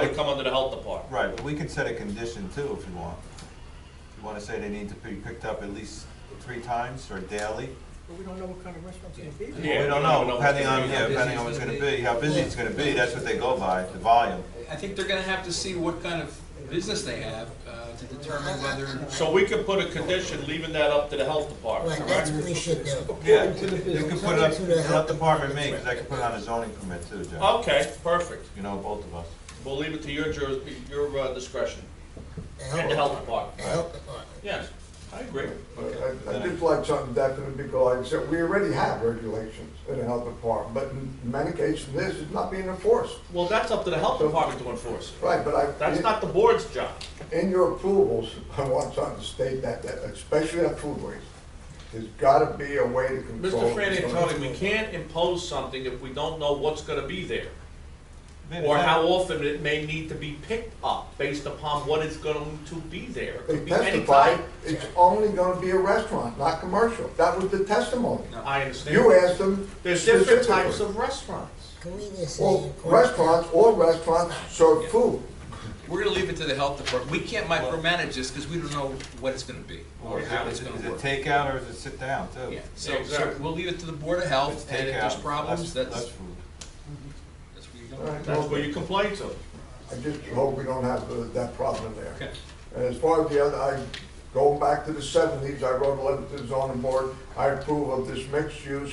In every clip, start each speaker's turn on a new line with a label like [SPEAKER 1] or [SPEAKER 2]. [SPEAKER 1] would come under the health department.
[SPEAKER 2] Right, but we can set a condition too if you want. If you wanna say they need to be picked up at least three times or daily.
[SPEAKER 3] But we don't know what kind of restaurant's gonna be
[SPEAKER 1] Yeah.
[SPEAKER 3] there.
[SPEAKER 2] We
[SPEAKER 1] we don't
[SPEAKER 2] don't
[SPEAKER 1] know
[SPEAKER 2] know,
[SPEAKER 1] what's
[SPEAKER 2] depending
[SPEAKER 1] gonna
[SPEAKER 2] on,
[SPEAKER 1] be,
[SPEAKER 2] yeah,
[SPEAKER 1] how
[SPEAKER 2] depending
[SPEAKER 4] busy
[SPEAKER 2] on
[SPEAKER 4] it's
[SPEAKER 2] what's gonna
[SPEAKER 4] gonna
[SPEAKER 2] be,
[SPEAKER 4] be.
[SPEAKER 2] how busy it's gonna be, that's what they go by, the volume.
[SPEAKER 4] I think they're gonna have to see what kind of business they have, uh, to determine whether.
[SPEAKER 1] So we could put a condition leaving that up to the health department,
[SPEAKER 5] Right, that's
[SPEAKER 1] correct?
[SPEAKER 5] what we should do.
[SPEAKER 2] Yeah,
[SPEAKER 3] According to the
[SPEAKER 2] you can
[SPEAKER 3] business.
[SPEAKER 2] put it up,
[SPEAKER 5] According to the
[SPEAKER 2] let
[SPEAKER 5] health
[SPEAKER 2] the department make, cause I can put it on a zoning permit too, Jeff.
[SPEAKER 1] Okay, perfect.
[SPEAKER 2] You know, both of us.
[SPEAKER 1] We'll leave it to your jur, your uh, discretion,
[SPEAKER 5] The
[SPEAKER 1] and the
[SPEAKER 5] health,
[SPEAKER 1] health department.
[SPEAKER 5] the health department.
[SPEAKER 1] Yes, I agree.
[SPEAKER 6] I I did like something definite because I said, we already have regulations in the health department, but in many cases, this is not being enforced.
[SPEAKER 1] Well, that's up to the health department to enforce it.
[SPEAKER 6] Right, but I.
[SPEAKER 1] That's not the board's job.
[SPEAKER 6] In your approvals, I want something to state that, that especially on food waste, there's gotta be a way to control.
[SPEAKER 1] Mr. Fran Antoni, we can't impose something if we don't know what's gonna be there, or how often it may need to be picked up, based upon what is going to be there. It
[SPEAKER 6] They
[SPEAKER 1] could be any
[SPEAKER 6] testified,
[SPEAKER 1] kind.
[SPEAKER 6] it's only gonna be a restaurant, not commercial. That was the testimony.
[SPEAKER 1] I understand.
[SPEAKER 6] You asked them.
[SPEAKER 1] There's different
[SPEAKER 6] specifically.
[SPEAKER 1] types of restaurants.
[SPEAKER 5] Can we just say?
[SPEAKER 6] Well,
[SPEAKER 5] according to-
[SPEAKER 6] restaurants, all restaurants serve food.
[SPEAKER 4] We're gonna leave it to the health department. We can't micromanage this because we don't know what it's gonna be or
[SPEAKER 2] Is
[SPEAKER 4] how
[SPEAKER 2] it-
[SPEAKER 4] it's
[SPEAKER 2] is it
[SPEAKER 4] gonna
[SPEAKER 2] is
[SPEAKER 4] work.
[SPEAKER 2] it takeout or is it sit down too?
[SPEAKER 4] Yeah,
[SPEAKER 1] Yeah,
[SPEAKER 4] so, so
[SPEAKER 1] exactly.
[SPEAKER 4] we'll leave it to the Board of
[SPEAKER 2] If it's
[SPEAKER 4] Health, and if there's
[SPEAKER 2] takeout,
[SPEAKER 4] problems,
[SPEAKER 2] less-
[SPEAKER 4] that's,
[SPEAKER 2] less food.
[SPEAKER 4] that's where you
[SPEAKER 6] All
[SPEAKER 4] go.
[SPEAKER 6] right.
[SPEAKER 1] That's where you complain to.
[SPEAKER 6] I just hope we don't have uh, that problem there.
[SPEAKER 4] Okay.
[SPEAKER 6] And as far as the other, I, going back to the seventies, I wrote a letter to the zoning board, I approve of this mixed use,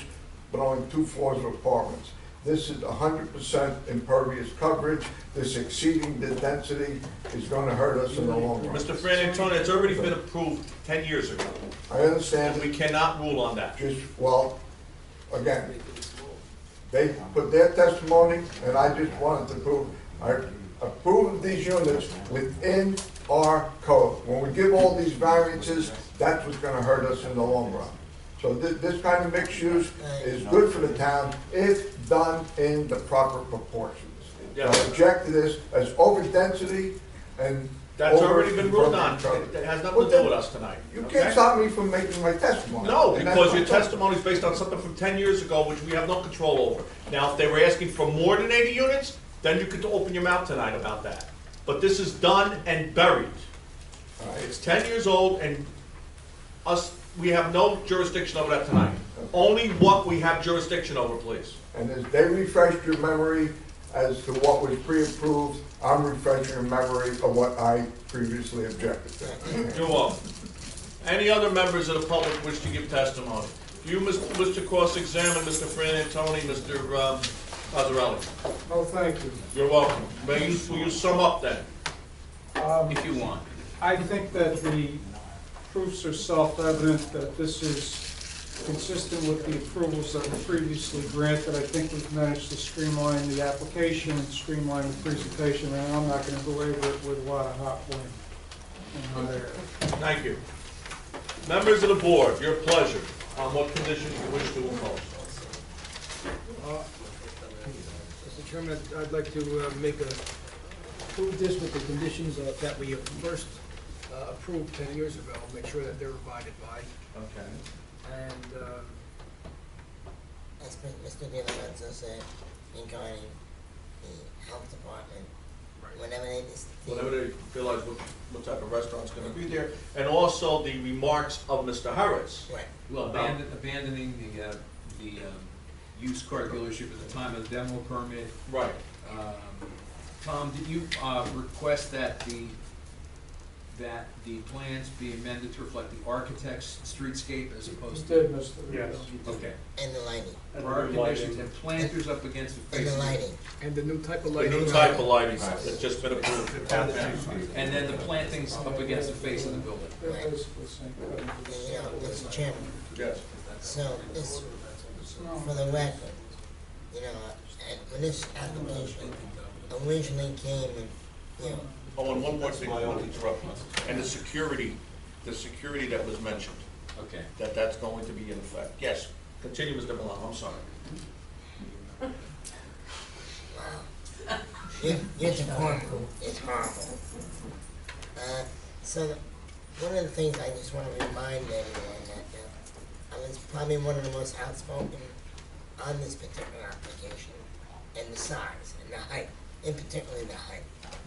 [SPEAKER 6] but only two floors of apartments. This is hundred percent impervious coverage, this exceeding the density is gonna hurt us in the long run.
[SPEAKER 1] Mr. Fran Antoni, it's already been approved ten years ago,
[SPEAKER 6] I
[SPEAKER 1] and we
[SPEAKER 6] understand,
[SPEAKER 1] cannot rule on that.
[SPEAKER 6] just, well, again, they put their testimony, and I just wanted to prove, I approve of these units within our code. When we give all these variances, that's what's gonna hurt us in the long run. So this, this kind of mixed use is good for the town if done in the proper proportions. I object to this as overdensity and.
[SPEAKER 1] That's
[SPEAKER 6] over-
[SPEAKER 1] already been ruled on. It it has nothing to do with us tonight.
[SPEAKER 6] You
[SPEAKER 1] okay?
[SPEAKER 6] can't stop me from making my testimony.
[SPEAKER 1] No,
[SPEAKER 6] And that's
[SPEAKER 1] because your
[SPEAKER 6] my point.
[SPEAKER 1] testimony is based on something from ten years ago, which we have no control over. Now, if they were asking for more than eighty units, then you could open your mouth tonight about that. But this is done and buried.
[SPEAKER 6] All right.
[SPEAKER 1] It's ten years old, and us, we have no jurisdiction over that tonight. Only what we have jurisdiction over, please.
[SPEAKER 6] And as they refreshed your memory as to what was pre-approved, I'm refreshing your memory of what I previously objected to.
[SPEAKER 1] You're welcome. Any other members of the public wish to give testimony? You, Mr. Cross-Examine, Mr. Fran Antoni, Mr. um, Cosarelli.
[SPEAKER 3] Oh, thank you.
[SPEAKER 1] You're welcome. May you, will you sum up then?
[SPEAKER 3] Um,
[SPEAKER 4] If you want.
[SPEAKER 3] I think that the proofs are self-evident, that this is consistent with the approvals that were previously granted. I think we've managed to streamline the application, streamline the presentation, and I'm not gonna belabor it with a lot of hot wind and hot air.
[SPEAKER 1] Thank you. Members of the board, your pleasure on what conditions you wish to impose.
[SPEAKER 7] Uh, Mr. Chairman, I'd- I'd like to uh, make a, approve this with the conditions of- that we first uh, approved ten years ago, make sure that they're abided by,
[SPEAKER 1] Okay.
[SPEAKER 7] and,
[SPEAKER 1] uh,
[SPEAKER 7] um,
[SPEAKER 5] As Mr. De Lorenzo said, regarding the health department, whenever they, dis-
[SPEAKER 1] Whenever they realize what, what type of restaurant's gonna be there, and also the remarks of Mr. Harris.
[SPEAKER 5] right,
[SPEAKER 4] Well, abandon- abandoning the, uh, the um, used car dealership at the time of the demo permit.
[SPEAKER 1] Right.
[SPEAKER 4] Um, Tom, did you uh, request that the, that the plans be amended to reflect the architect's streetscape as opposed to?
[SPEAKER 3] Did, Mr.
[SPEAKER 7] Yes.
[SPEAKER 4] Okay.
[SPEAKER 5] and the lighting,
[SPEAKER 4] Prior conditions and planters up against the
[SPEAKER 5] and
[SPEAKER 4] face.
[SPEAKER 5] the
[SPEAKER 4] of the-
[SPEAKER 5] lighting.
[SPEAKER 7] and the new type of
[SPEAKER 1] The
[SPEAKER 7] lighting. uh,
[SPEAKER 1] new type of lighting that's just been approved.
[SPEAKER 2] Down the street.
[SPEAKER 4] And then the plantings up against the face of the building.
[SPEAKER 3] They're basically saying cut it to the
[SPEAKER 5] You know,
[SPEAKER 3] center.
[SPEAKER 5] Mr. Chairman,
[SPEAKER 1] Yes.
[SPEAKER 5] so this, for the record, you know, and when this application originally came and, you know,
[SPEAKER 1] Oh, and one more thing, I want to interrupt you. And the security, the security that was mentioned,
[SPEAKER 4] Okay.
[SPEAKER 1] that that's going to be in effect. Yes, continue, Mr. Milano, I'm sorry.
[SPEAKER 5] Your, your department is horrible. Uh, so, the- one of the things I just wanna remind everyone that, uh, I was probably one of the most outspoken on this particular application, and the size, and the height. in particular the height.